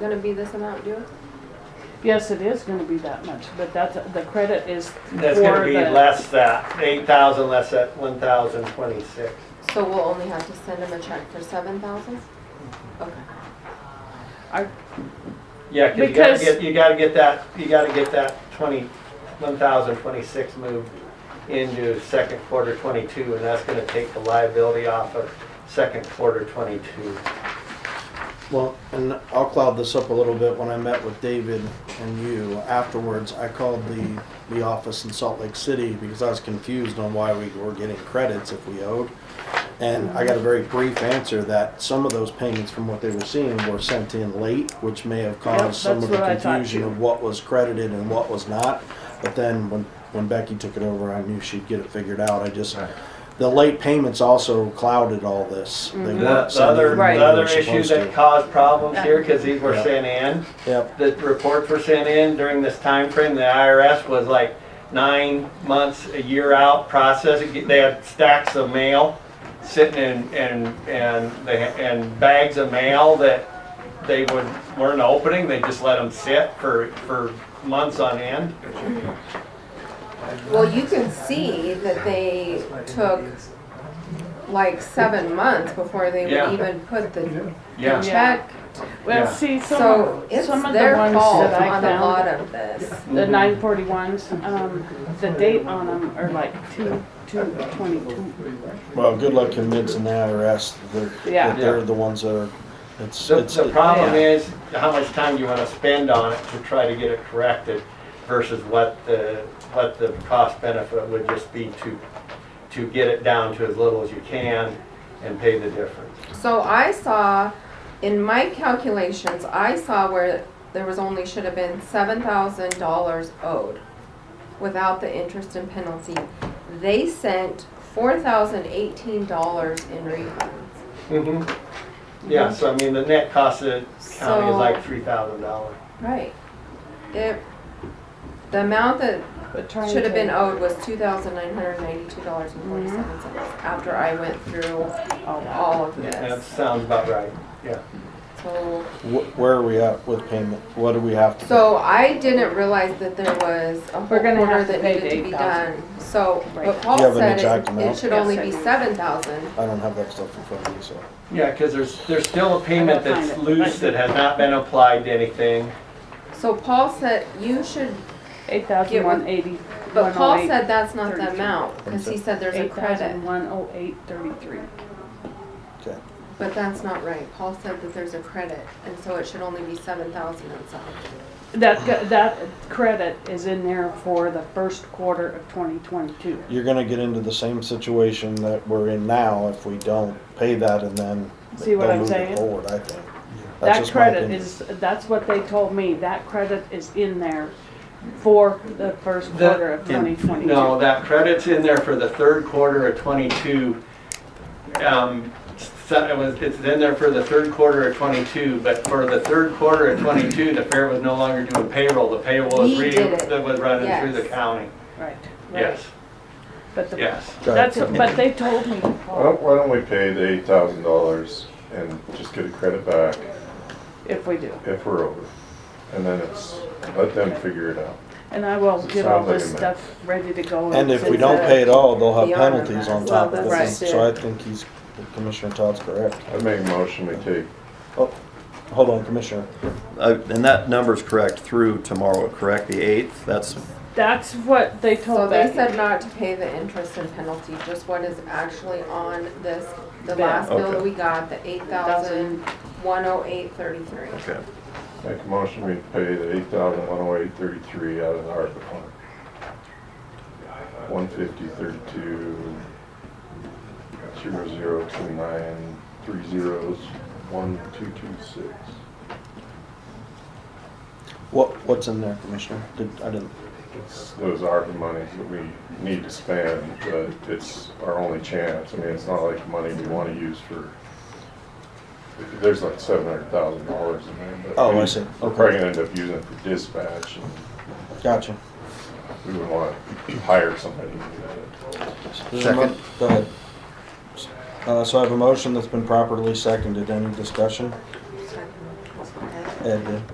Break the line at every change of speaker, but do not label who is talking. gonna be this amount due?
Yes, it is gonna be that much, but that's, the credit is
That's
For
gonna be
the-
less that, eight thousand less that one thousand twenty-six.
So we'll only have to send them a check for seven thousand? Okay.
Yeah, 'cause you gotta
Because-
get, you gotta get that, you gotta get that twenty, one thousand twenty-six moved into second quarter twenty-two, and that's gonna take the liability off of second quarter twenty-two.
Well, and I'll cloud this up a little bit. When I met with David and you afterwards, I called the, the office in Salt Lake City because I was confused on why we were getting credits if we owed. And I got a very brief answer that some of those payments from what they were seeing were sent in late, which may have
Yep,
caused some of
that's
the
what I thought
confusion
too.
of what was credited and what was not. But then when, when Becky took it over, I knew she'd get it figured out. I just, the late payments also clouded all this. They
Mhm.
The
weren't
the
sending
other,
in
the
Right.
when they were
other issue
supposed
that
to.
caused problems here, cause these were
Yeah.
sent in,
Yep.
the reports were sent in during this time frame. the IRS was like nine months, a year out processing, they had stacks of mail sitting in, and, and they, and bags of mail that they would, weren't opening, they just let them sit for, for months on end.
Well, you can see that they took like seven months before they
Yeah.
would even put the
Yeah,
check.
Well,
Yeah.
see, some
So
of,
it's
some of
their
the ones
fault
that I
on a lot
found,
of this.
the
Mm-hmm.
nine forty ones, um, the date on them are like two, two, twenty-two.
Well, good luck convincing the IRS that they're,
Yeah.
that they're the ones that are, it's,
the,
it's.
the problem is how much time you wanna spend on it to try to get it corrected versus what the, what the cost benefit would just be to, to get it down to as little as you can and pay the difference.
So I saw, in my calculations, I saw where there was only, should have been seven thousand dollars owed without the interest and penalty. They sent four thousand eighteen dollars in refunds.
Mm-hmm. Yeah, so I mean, the net cost of the county is
So-
like three thousand dollars.
Right. It, the amount that
but trying
should have been
to-
owed was two thousand nine hundred ninety-two dollars and forty-seven cents after I went through
all that.
all of
That
this.
sounds about right, yeah.
So,
Wh- Where are we at with payment? What do we have to?
so I didn't realize that there was a whole
We're gonna
order
have to
that
pay
needed
the
to be
8,000.
done. So,
Right.
but
Do you
Paul
have an
said
exact
it, it
amount?
should
Yes,
only
I
be
do.
seven thousand.
I don't have that stuff in front of me, so.
Yeah, because there's, there's still a payment
gotta find
that's
it.
loose that has not been applied to anything.
So Paul said, you should,
Eight thousand one eighty,
but
one
Paul
oh eight,
said that's not the
32.
amount, cause he said there's a
eight
credit.
thousand one oh eight thirty-three.
Okay.
But that's not right. Paul said that there's a credit, and so it should only be seven thousand and something.
That, go- that credit is in there for the first quarter of twenty twenty-two.
You're gonna get into the same situation that we're in now if we don't pay that and then.
See what
they'll
I'm
move it
saying?
Forward, I think. That's
That
just my
credit
opinion.
is, that's what they told me, that credit is in there for the first
The-
quarter of twenty twenty-two.
No, that credit's in there for the third quarter of twenty-two. Um, so it was, it's in there for the third quarter of twenty-two, but for the third quarter of twenty-two, the fair was no longer doing payroll. The payroll was
We
re,
did it.
that was running through the
Yes.
county.
Right. right.
Yes,
But the,
yes.
that's, but they told me,
Why
Oh.
don't, why don't we pay the eight thousand dollars and just get a credit back
if we do,
if we're over? And then it's, let them figure it out.
and I will get all this
Sounds like a
stuff ready to go.
And if we
send
don't
that-
pay it all, they'll have
Beyond that.
penalties on
Well,
top of it.
that's
So I think he's, Commissioner Todd's correct.
I make a motion, we take,
Oh, hold on, Commissioner.
Uh, And that number's correct through tomorrow, correct? The 8th? That's,
That's what they
So
told
they
me,
said not to pay the interest and penalty, just what is actually on this, the
Bill.
last bill that
Okay.
we got, the eight thousand, one oh eight thirty-three.
okay.
make a motion, we pay the eight thousand one oh eight thirty-three out of the ARPA fund. One fifty thirty-two, zero zero two nine, three zeros, one two two six.
What, what's in there, Commissioner? Did, I didn't.
It's those ARPA monies that we need to spend, but it's our only chance. I mean, it's not like money we want to use for, there's like seven hundred thousand dollars in there. but
Oh, I see.
We're probably gonna end up using it for dispatch and
Gotcha.
we would want to hire somebody to do that.
There's a mo-
Second.
Go ahead. Uh, so I have a motion that's been properly seconded. Any discussion? Ed did.